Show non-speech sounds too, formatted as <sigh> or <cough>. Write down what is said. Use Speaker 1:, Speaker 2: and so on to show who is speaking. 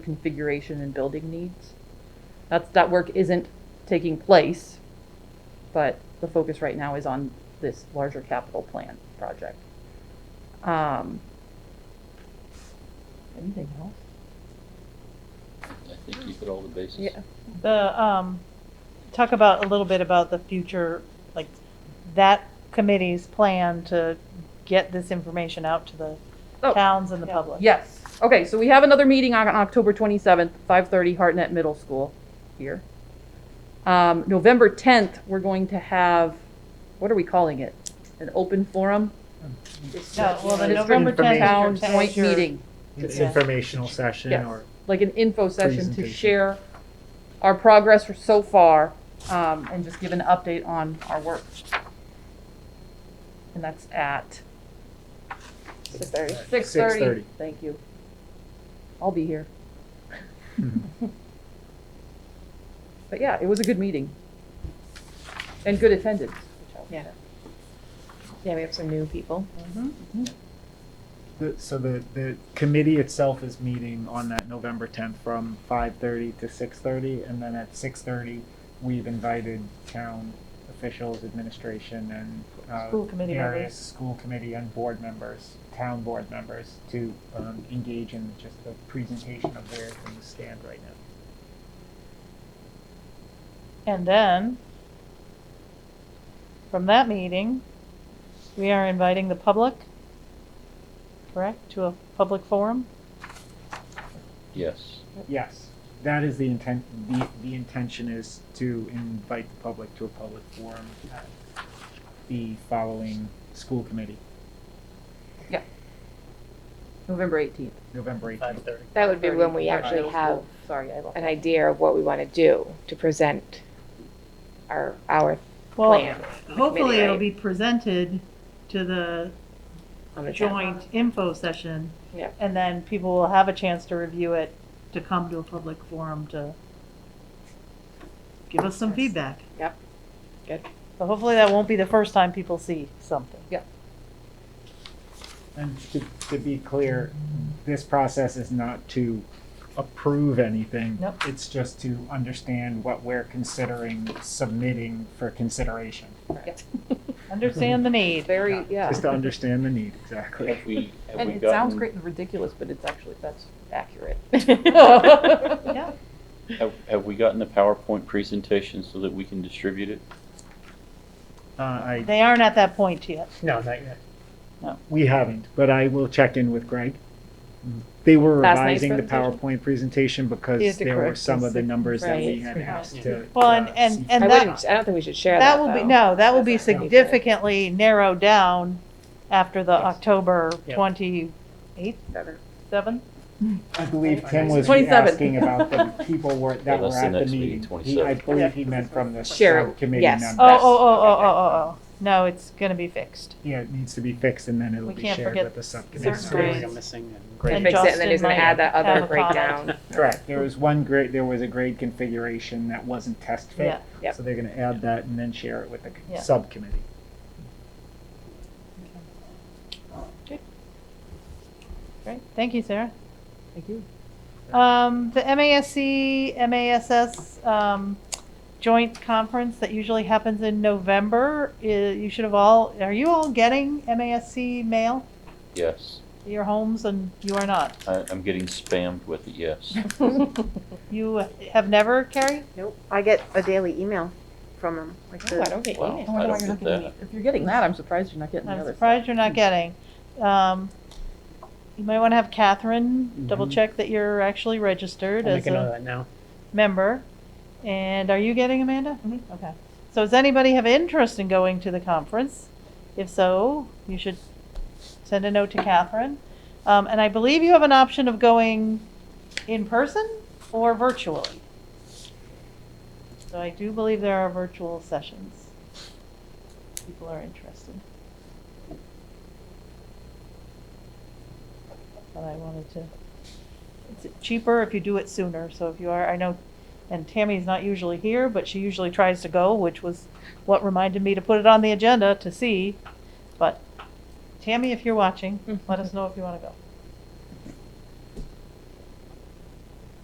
Speaker 1: configuration and building needs. That's, that work isn't taking place, but the focus right now is on this larger capital plan project. Um, Anything else?
Speaker 2: I think you hit all the bases.
Speaker 1: Yeah.
Speaker 3: The, um, talk about, a little bit about the future, like, that committee's plan to get this information out to the
Speaker 1: Oh.
Speaker 3: towns and the public.
Speaker 1: Yes. Okay, so we have another meeting on on October 27th, 5:30, Hartnett Middle School here. Um, November 10th, we're going to have, what are we calling it? An open forum?
Speaker 3: No, well, the
Speaker 1: It's
Speaker 3: November
Speaker 1: a Town
Speaker 3: tenth is your-
Speaker 1: joint
Speaker 3: is your-
Speaker 1: meeting,
Speaker 4: It's
Speaker 3: Yeah.
Speaker 4: informational session
Speaker 1: Yes.
Speaker 4: or
Speaker 1: like an info session to
Speaker 4: Presentation.
Speaker 1: share our progress so far, um, and just give an update on our work. And that's at
Speaker 5: Six thirty.
Speaker 1: 6:30. Thank you. I'll be here.
Speaker 5: Mm-hmm.
Speaker 1: But yeah, it was a good meeting. And good attendance. which I'll-
Speaker 5: Yeah. Yeah, we have some new people.
Speaker 4: The- So the, the committee itself is meeting on that November tenth from five thirty to six thirty, and then at six thirty, we've invited town officials, administration, and uh,
Speaker 3: School committee
Speaker 4: various
Speaker 3: members.
Speaker 4: School committee and board members, town board members, to um, engage in just the presentation of where things stand right now.
Speaker 3: And then, from that meeting, we are inviting the public, correct, to a public forum?
Speaker 2: Yes.
Speaker 4: Yes, that is the intent. The the intention is to invite the public to a public forum at the following school committee,
Speaker 1: November 18th.
Speaker 4: November eighteenth.
Speaker 5: That would be when we
Speaker 1: 5:30,
Speaker 5: actually
Speaker 1: middle
Speaker 5: have
Speaker 1: school. Sorry, I lost.
Speaker 5: an idea of what we want to do to present our, our
Speaker 3: Well,
Speaker 5: plan.
Speaker 3: hopefully it'll
Speaker 5: right?
Speaker 3: be presented to the
Speaker 5: on the town.
Speaker 3: joint info session.
Speaker 5: Yeah.
Speaker 3: And then people will have a chance to review it, to come to a public forum to give us some feedback.
Speaker 5: Yep. Good.
Speaker 3: So hopefully that won't be the first time people see something.
Speaker 4: And to, to be clear, this process is not to approve anything.
Speaker 3: Nope.
Speaker 4: It's just to understand what we're considering submitting for consideration.
Speaker 3: Understand the need.
Speaker 1: Very, yeah.
Speaker 4: Just to understand the need,
Speaker 2: <laughs>
Speaker 4: exactly.
Speaker 2: Have we, have
Speaker 1: And
Speaker 2: we
Speaker 1: it sounds
Speaker 2: gotten-
Speaker 1: great and ridiculous, but it's actually, that's
Speaker 2: <laughs>
Speaker 1: accurate.
Speaker 3: Yeah,
Speaker 2: Have, have we gotten the PowerPoint presentation so that we can distribute it?
Speaker 4: Uh, I,
Speaker 3: they aren't at that point yet.
Speaker 6: No, not yet.
Speaker 4: we haven't, but I will check in with Greg. They were
Speaker 1: Last night's
Speaker 4: revising the
Speaker 1: presentation?
Speaker 4: PowerPoint presentation
Speaker 5: He had
Speaker 4: because
Speaker 5: to
Speaker 4: there were
Speaker 5: correct
Speaker 4: some of the
Speaker 5: us.
Speaker 4: numbers that we had
Speaker 5: Right.
Speaker 4: asked to.
Speaker 3: Well, and,
Speaker 4: uh,
Speaker 3: and,
Speaker 4: see.
Speaker 3: and
Speaker 5: I
Speaker 3: that,
Speaker 5: wouldn't, I don't think we should share that
Speaker 3: that will be,
Speaker 5: though.
Speaker 3: no, that will be
Speaker 5: That's not gonna be
Speaker 3: significantly narrowed down after the
Speaker 6: Yes.
Speaker 3: October
Speaker 6: Yep.
Speaker 3: twenty-eighth,
Speaker 5: Better.
Speaker 3: seven?
Speaker 4: I believe Tim was
Speaker 1: 27.
Speaker 4: asking about the people were,
Speaker 2: Yeah,
Speaker 4: that were
Speaker 2: that's the
Speaker 4: at the
Speaker 2: next meeting,
Speaker 4: meeting. He-
Speaker 2: 27.
Speaker 4: I believe he meant from the
Speaker 5: Share it,
Speaker 4: subcommittee
Speaker 5: yes.
Speaker 4: members.
Speaker 3: Oh, oh, oh, oh, oh, oh, oh, no, it's gonna be fixed.
Speaker 4: Yeah, it needs to be fixed and then it'll
Speaker 3: We
Speaker 4: be
Speaker 3: can't
Speaker 4: shared
Speaker 3: forget
Speaker 4: with the subcommittee.
Speaker 3: Third
Speaker 6: Next
Speaker 3: grade.
Speaker 6: grade, I'm missing. and-
Speaker 4: Great.
Speaker 3: And
Speaker 5: Fix it and then
Speaker 3: Justin
Speaker 5: he's gonna
Speaker 3: might
Speaker 5: add that
Speaker 3: have
Speaker 5: other
Speaker 3: a comment.
Speaker 5: breakdown.
Speaker 4: Correct, there was one grade, there was a grade configuration that wasn't test fit.
Speaker 3: Yeah.
Speaker 5: Yep.
Speaker 4: So they're gonna add that and then share it with the
Speaker 3: Yeah.
Speaker 4: subcommittee.
Speaker 3: Great, thank you, Sarah.
Speaker 1: Thank you.
Speaker 3: Um, the MASC, MASS, um, joint conference that usually happens in November, i- you should have all, are you all getting MASC mail?
Speaker 2: Yes.
Speaker 3: to Your homes and you are not.
Speaker 2: I, I'm getting spammed with it, yes.
Speaker 3: You have never, Carrie?
Speaker 7: Nope. I get a daily email from them. Like
Speaker 5: No, I don't get
Speaker 2: Wow.
Speaker 5: emails.
Speaker 1: I wonder why
Speaker 2: don't
Speaker 1: you're not
Speaker 2: get
Speaker 1: getting,
Speaker 2: that.
Speaker 1: any- if you're getting that, I'm surprised you're not getting the
Speaker 3: I'm
Speaker 1: other
Speaker 3: surprised
Speaker 1: stuff.
Speaker 3: you're not getting. Um, you might want to have Catherine double
Speaker 4: Mhm.
Speaker 3: check that you're actually registered
Speaker 6: Mm-hmm. I'll
Speaker 3: as
Speaker 6: make a note of
Speaker 3: a
Speaker 6: that now.
Speaker 3: member. And are you getting Amanda? Mm-hmm. Okay. So does anybody have interest in going to the conference? If so, you should send a note to Catherine. Um, and I believe you have an option of going in person or virtually. So I do believe there are virtual sessions. People are interested. But I wanted to, it's cheaper if you do it sooner, so if you are, I know, and Tammy's not usually here, but she usually tries to go, which was what reminded me to put it on the agenda to see. But Tammy, if you're watching, let us know if you wanna go.